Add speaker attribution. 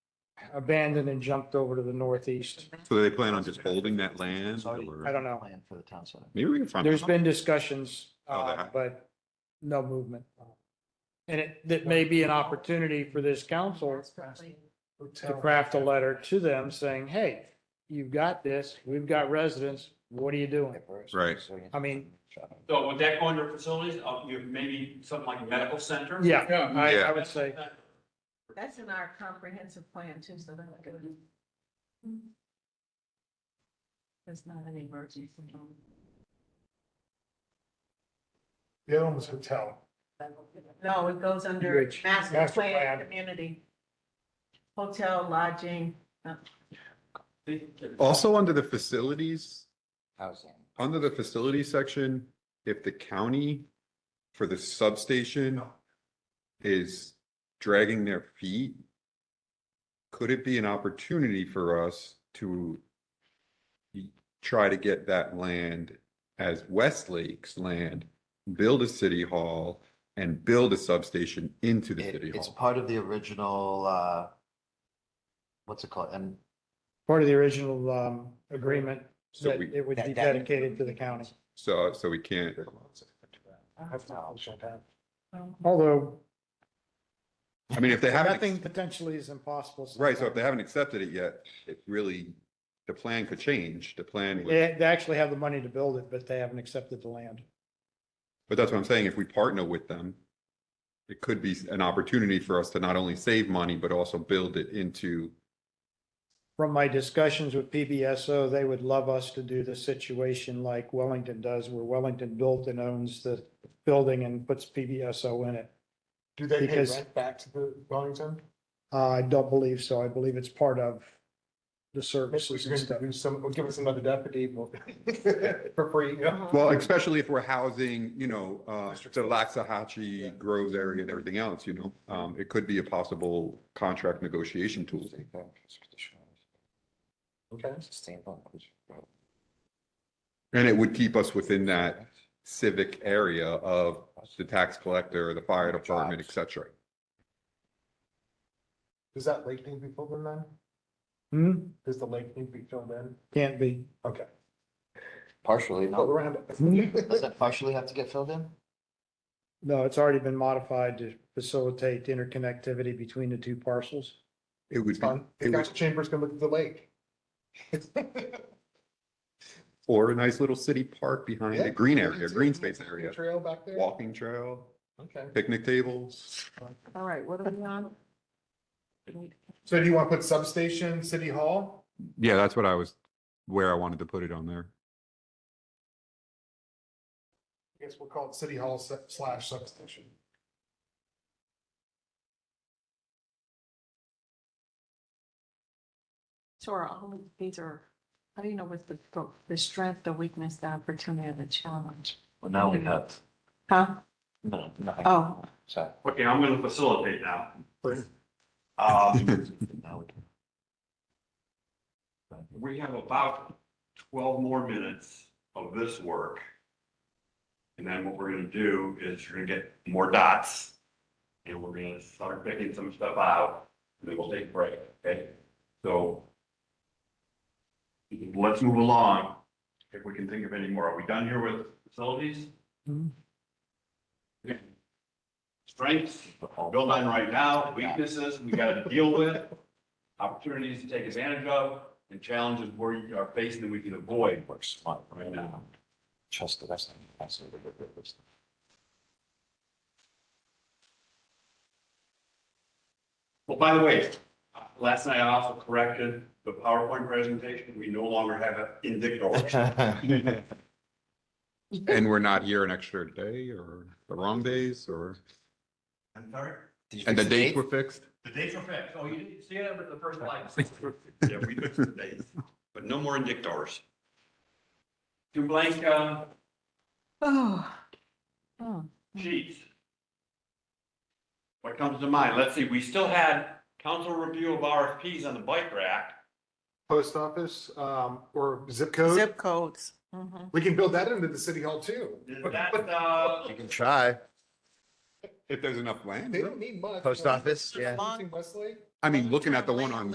Speaker 1: abandoned and jumped over to the northeast.
Speaker 2: So they plan on just holding that land or?
Speaker 1: I don't know.
Speaker 3: Plan for the town center.
Speaker 2: Maybe we can find.
Speaker 1: There's been discussions,
Speaker 2: Oh, there
Speaker 1: uh,
Speaker 2: have-
Speaker 1: but no movement. And it, that may be an opportunity for this council to craft a letter to them saying, hey, you've got this, we've got residents, what are you doing?
Speaker 2: Right.
Speaker 1: I mean-
Speaker 4: So would that go under facilities, uh, you, maybe something like a medical center?
Speaker 1: Yeah, I, I
Speaker 2: Yeah.
Speaker 1: would say,
Speaker 5: That's in our comprehensive plan too, so that's good. It's not an emergency.
Speaker 6: The other one was hotel.
Speaker 5: No, it goes under
Speaker 1: Bridge.
Speaker 5: master
Speaker 6: Master
Speaker 5: plan,
Speaker 6: plan.
Speaker 5: community, hotel, lodging.
Speaker 2: Also, under the facilities,
Speaker 3: Housing.
Speaker 2: under the facilities section, if the county for the substation is dragging their feet, could it be an opportunity for us to try to get that land as Westlake's land, build a city hall and build a substation into the city
Speaker 3: It- It's
Speaker 2: hall?
Speaker 3: part of the original, uh, what's it called? And
Speaker 1: part of the original, um, agreement
Speaker 2: So
Speaker 1: that
Speaker 2: we,
Speaker 1: it would be
Speaker 3: That- that-
Speaker 1: dedicated to the county.
Speaker 2: so, so we can't,
Speaker 5: Uh-huh.
Speaker 1: Although
Speaker 2: I mean, if they haven't.
Speaker 1: nothing potentially is impossible.
Speaker 2: Right, so if
Speaker 1: sometimes.
Speaker 2: they haven't accepted it yet, it really, the plan could change, the plan, would-
Speaker 1: They, they actually have the money to build it, but they haven't accepted the land.
Speaker 2: but that's what I'm saying, if we partner with them, it could be an opportunity for us to not only save money, but also build it into,
Speaker 1: From my discussions with PBSO, they would love us to do the situation like Wellington does, where Wellington built and owns the building and puts PBSO in it.
Speaker 6: Do they pay
Speaker 1: Because-
Speaker 6: rent back to the Wellington?
Speaker 1: Uh, I don't believe so. I believe it's part of the
Speaker 6: Maybe
Speaker 1: services and
Speaker 6: we
Speaker 1: stuff.
Speaker 6: can do some, give us another deputy we'll- for free, you know?
Speaker 2: well, especially if we're housing, you know, uh, the
Speaker 6: Yeah.
Speaker 2: Laxahatchee Groves area and everything else, you know? Um, it could be a possible contract negotiation tool.
Speaker 6: Okay.
Speaker 2: And it would keep us within that civic area of the tax collector, the fire department, et cetera.
Speaker 6: Does that lake need to be filled in then?
Speaker 1: Hmm,
Speaker 6: Does the lake need to be filled in?
Speaker 1: can't be.
Speaker 6: Okay.
Speaker 3: partially,
Speaker 6: Well,
Speaker 3: no.
Speaker 6: around
Speaker 3: Does
Speaker 6: it.
Speaker 3: that partially have to get filled in?
Speaker 1: No, it's already been modified to facilitate interconnectivity between the two parcels.
Speaker 2: It would
Speaker 6: It's
Speaker 2: be,
Speaker 6: fun. The
Speaker 2: it would
Speaker 6: council chambers can look at the lake.
Speaker 2: Or a nice little city park behind
Speaker 6: Yeah.
Speaker 2: a green area, green space area,
Speaker 6: Trail back there.
Speaker 2: walking trail,
Speaker 6: Okay.
Speaker 2: picnic tables.
Speaker 5: All right, what are we on?
Speaker 6: So do you want to put substation, city hall?
Speaker 2: Yeah, that's what I was, where I wanted to put it on there.
Speaker 6: I guess we'll call it city hall se- slash substation.
Speaker 5: So are all of these are, how do you know what's the, the strength, the weakness, the opportunity, and the challenge?
Speaker 3: Well, now we have,
Speaker 5: Huh?
Speaker 3: no, nothing.
Speaker 2: Ah.
Speaker 5: Oh.
Speaker 3: So.
Speaker 4: Okay, I'm gonna facilitate now. Um,
Speaker 3: now we can-
Speaker 4: we have about twelve more minutes of this work. And then what we're gonna do is we're gonna get more dots. And we're gonna start picking some stuff out, and then we'll take a break, okay? So. Let's move along, if we can think of any more. Are we done here with facilities?
Speaker 1: Hmm.
Speaker 4: Okay. Strengths, build on right now, weaknesses we gotta deal with, opportunities to take advantage of, and challenges where you are facing that we can avoid
Speaker 3: Works smart
Speaker 4: right now.
Speaker 3: Trust the rest of them. Absolutely.
Speaker 4: Well, by the way, uh, last night I also corrected the PowerPoint presentation, we no longer have it in dictation.
Speaker 2: And we're not here an extra day or the wrong days or,
Speaker 4: I'm sorry,
Speaker 3: Did you
Speaker 2: and the
Speaker 3: fix
Speaker 2: dates
Speaker 3: date?
Speaker 2: were fixed?
Speaker 4: the dates are fixed, oh, you didn't see it at the first slide. Yeah, we fixed the dates, but no more in dictators. Two blank, uh,
Speaker 5: Oh. Oh.
Speaker 4: sheets. What comes to mind, let's see, we still had council review of RFPs on the bike rack.
Speaker 6: Post office, um, or zip code.
Speaker 5: Zip codes. Mhm.
Speaker 6: We can build that into the city hall too.
Speaker 4: Is that, uh,
Speaker 7: You can try.
Speaker 2: If there's enough land.
Speaker 6: They don't need much.
Speaker 7: Post office, yeah.
Speaker 6: Using Westlake?
Speaker 2: I mean, looking at the one on